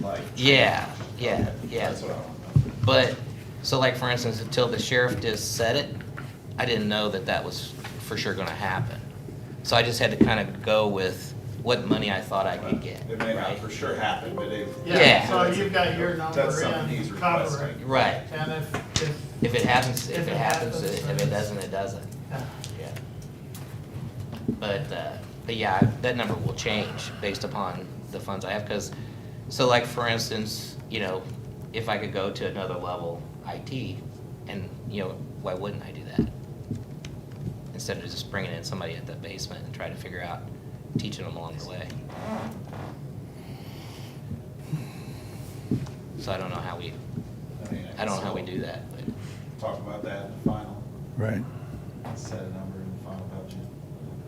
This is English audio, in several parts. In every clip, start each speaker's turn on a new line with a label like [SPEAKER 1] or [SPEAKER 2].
[SPEAKER 1] life.
[SPEAKER 2] Yeah, yeah, yeah.
[SPEAKER 1] That's what I want to know.
[SPEAKER 2] But, so like, for instance, until the sheriff just said it, I didn't know that that was for sure gonna happen. So I just had to kind of go with what money I thought I could get,
[SPEAKER 1] It may not
[SPEAKER 2] right?
[SPEAKER 1] for sure happen, but it.
[SPEAKER 2] Yeah.
[SPEAKER 3] So you've got your number
[SPEAKER 1] That's something he's
[SPEAKER 3] in, cover it.
[SPEAKER 1] requesting.
[SPEAKER 2] Right,
[SPEAKER 3] And if, if,
[SPEAKER 2] if it happens, if
[SPEAKER 3] If
[SPEAKER 2] it
[SPEAKER 3] it
[SPEAKER 2] happens,
[SPEAKER 3] happens,
[SPEAKER 2] it- if it
[SPEAKER 3] then-
[SPEAKER 2] doesn't, it doesn't,
[SPEAKER 3] yeah.
[SPEAKER 2] yeah. But, uh, but yeah, I- that number will change based upon the funds I have, because, so like, for instance, you know, if I could go to another level IT, and, you know, why wouldn't I do that? Instead of just bringing in somebody at the basement and trying to figure out, teaching them along the way. So I don't know how we,
[SPEAKER 1] mean,
[SPEAKER 2] I don't know how we
[SPEAKER 1] guess
[SPEAKER 2] do that, but,
[SPEAKER 1] we'll Talk about that in the final,
[SPEAKER 4] Right.
[SPEAKER 1] set a number in the final budget.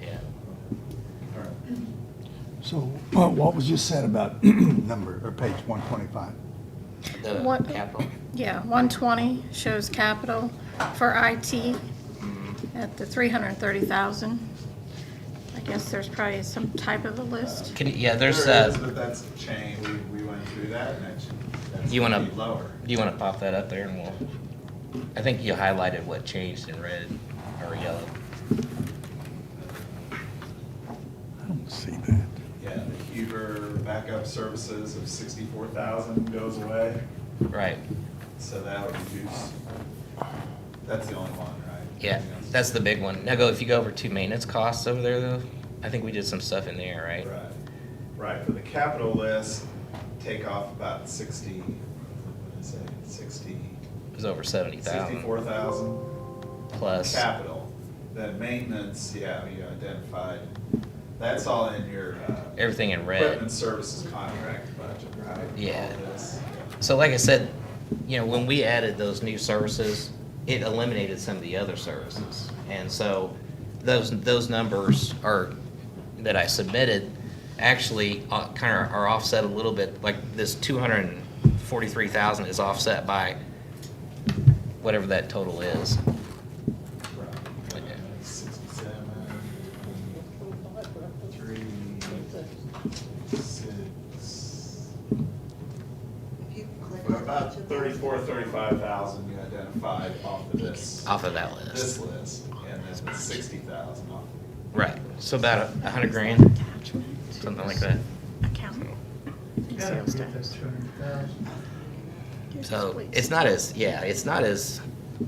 [SPEAKER 2] yeah.
[SPEAKER 1] All right.
[SPEAKER 4] So uh, what was just said about number, or page 125?
[SPEAKER 2] The
[SPEAKER 5] What-
[SPEAKER 2] capital,
[SPEAKER 5] Yeah, one twenty shows capital for IT at the three hundred and thirty thousand. I guess there's probably some type of a list.
[SPEAKER 2] can, you- yeah, there's,
[SPEAKER 1] There
[SPEAKER 2] uh,
[SPEAKER 1] is, but that's a chain, we, we went through that, and that should, that's
[SPEAKER 2] You wanna-
[SPEAKER 1] gonna be lower.
[SPEAKER 2] Do you want to pop that up there and we'll, I think you highlighted what changed in red or yellow.
[SPEAKER 4] I don't see that.
[SPEAKER 1] Yeah, the Huber backup services of sixty-four thousand goes away,
[SPEAKER 2] Right,
[SPEAKER 1] so that would reduce, that's the only one, right?
[SPEAKER 2] yeah,
[SPEAKER 1] Everything else is-
[SPEAKER 2] that's the big one. Now go, if you go over to maintenance costs over there though, I think we did some stuff in there, right?
[SPEAKER 1] Right, right, for the capital list, take off about sixty, what did I say, sixty,
[SPEAKER 2] It was over seventy thousand
[SPEAKER 1] sixty-four thousand?
[SPEAKER 2] plus.
[SPEAKER 1] Capital, then maintenance, yeah, you identified, that's all in your, uh,
[SPEAKER 2] Everything in
[SPEAKER 1] Equipment
[SPEAKER 2] red.
[SPEAKER 1] services contract budget, right?
[SPEAKER 2] Yeah.
[SPEAKER 1] All this.
[SPEAKER 2] So like I said, you know, when we added those new services, it eliminated some of the other services. And so those, those numbers are, that I submitted, actually kind of are offset a little bit, like this two hundred and forty-three thousand is offset by whatever that total is.
[SPEAKER 1] Right.
[SPEAKER 2] Yeah.
[SPEAKER 1] Sixty-seven, three, six.
[SPEAKER 6] If you click on
[SPEAKER 1] About
[SPEAKER 6] each of those-
[SPEAKER 1] thirty-four, thirty-five thousand you identified off of this,
[SPEAKER 2] Off of that
[SPEAKER 1] this
[SPEAKER 2] list.
[SPEAKER 1] list, and then sixty thousand off. of-
[SPEAKER 2] Right, so about a a hundred grand, something like that.
[SPEAKER 5] Account.
[SPEAKER 3] You gotta
[SPEAKER 5] Sales
[SPEAKER 3] get that
[SPEAKER 5] tax.
[SPEAKER 3] 200,000.
[SPEAKER 5] Here's the
[SPEAKER 2] So
[SPEAKER 5] splits.
[SPEAKER 2] it's not as, yeah, it's not as,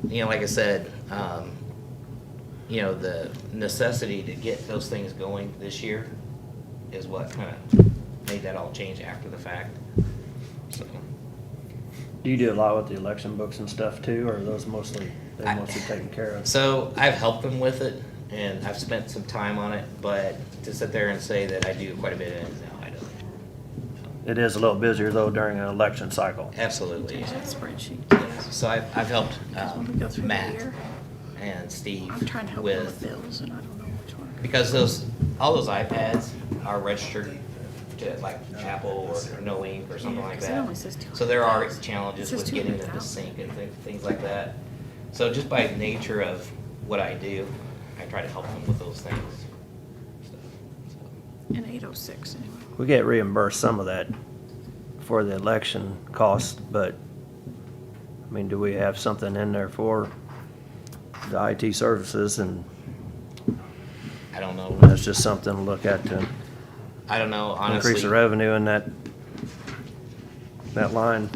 [SPEAKER 2] you know, like I said, um, you know, the necessity to get those things going this year is what kind of made that all change after the fact. So,
[SPEAKER 7] Do you do a lot with the election books and stuff too, or are those mostly,
[SPEAKER 2] I-
[SPEAKER 7] they're mostly taken care of?
[SPEAKER 2] so I've helped them with it and I've spent some time on it, but to sit there and say that I do quite a bit, no, I don't.
[SPEAKER 7] It is a little busier though during an election cycle.
[SPEAKER 2] Absolutely.
[SPEAKER 5] There's that spreadsheet.
[SPEAKER 2] So I've, I've helped,
[SPEAKER 5] When we go
[SPEAKER 2] um,
[SPEAKER 5] through the
[SPEAKER 2] Matt
[SPEAKER 5] year,
[SPEAKER 2] and Steve
[SPEAKER 5] I'm trying to help them with
[SPEAKER 2] with
[SPEAKER 5] bills and I don't know which one.
[SPEAKER 2] Because those, all those iPads are registered to like Apple or No Ink or something
[SPEAKER 5] Yeah,
[SPEAKER 2] like
[SPEAKER 5] 'cause it
[SPEAKER 2] that.
[SPEAKER 5] only says
[SPEAKER 2] So there are
[SPEAKER 5] 200,000.
[SPEAKER 2] challenges
[SPEAKER 5] It says
[SPEAKER 2] with getting them to
[SPEAKER 5] 200,000.
[SPEAKER 2] sync and thi- things like that. So just by nature of what I do, I try to help them with those things.
[SPEAKER 5] And eight oh six anyway.
[SPEAKER 7] We get reimbursed some of that for the election costs, but, I mean, do we have something in there for the IT services and
[SPEAKER 2] I don't know,
[SPEAKER 7] that's just something to look at to
[SPEAKER 2] I don't know honestly.
[SPEAKER 7] increase the revenue in that, that line?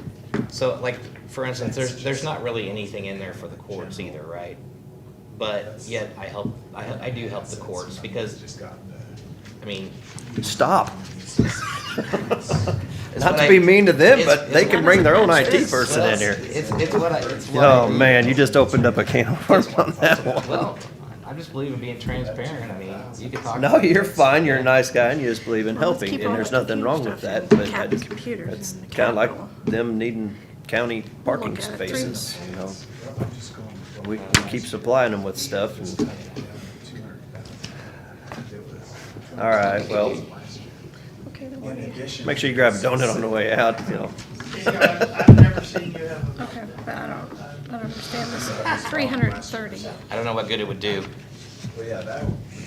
[SPEAKER 2] So like, for instance, there's, there's not really anything in there for the courts either, right? But yet I help, I, I do help the courts because,
[SPEAKER 1] Just got the.
[SPEAKER 2] I mean,
[SPEAKER 7] Stop.
[SPEAKER 2] It's
[SPEAKER 7] Not
[SPEAKER 2] what
[SPEAKER 7] to
[SPEAKER 2] I-
[SPEAKER 7] be mean to them,
[SPEAKER 2] it's-
[SPEAKER 7] but they
[SPEAKER 2] it's
[SPEAKER 7] can
[SPEAKER 2] what I-
[SPEAKER 7] bring their own IT
[SPEAKER 2] it's-
[SPEAKER 7] person
[SPEAKER 2] well,
[SPEAKER 7] in here.
[SPEAKER 2] It's, it's what I, it's what I
[SPEAKER 7] Oh,
[SPEAKER 2] do.
[SPEAKER 7] man, you just opened up a can of worms on that one.
[SPEAKER 2] Well, I just believe in being transparent, I mean, you can talk.
[SPEAKER 7] No, you're fine, you're a nice guy, and you just believe in
[SPEAKER 5] Well, let's
[SPEAKER 7] helping,
[SPEAKER 5] keep
[SPEAKER 7] and
[SPEAKER 5] all
[SPEAKER 7] there's
[SPEAKER 5] the
[SPEAKER 7] nothing
[SPEAKER 5] computer
[SPEAKER 7] wrong with
[SPEAKER 5] stuff
[SPEAKER 7] that,
[SPEAKER 5] and
[SPEAKER 7] but
[SPEAKER 5] cap-
[SPEAKER 7] that's,
[SPEAKER 5] computers
[SPEAKER 7] that's
[SPEAKER 5] and the
[SPEAKER 7] kinda like
[SPEAKER 5] capital.
[SPEAKER 7] them needing county parking
[SPEAKER 5] Look at it through.
[SPEAKER 7] spaces, you know? We, we keep supplying them with stuff, and, all right, well,
[SPEAKER 5] Okay, the
[SPEAKER 1] In
[SPEAKER 5] one.
[SPEAKER 1] addition.
[SPEAKER 7] make sure you grab a donut on the way out, you know?
[SPEAKER 3] You know, I've I've never seen you have a.
[SPEAKER 5] Okay, but I don't, I don't understand this. Three hundred and thirty
[SPEAKER 2] I don't know what good it would do,
[SPEAKER 1] Well, yeah, that,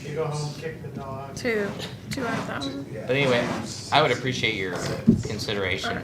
[SPEAKER 3] You go home, kick the dog.
[SPEAKER 5] to two hundred thousand.
[SPEAKER 1] yeah.
[SPEAKER 2] but anyway, I would appreciate your consideration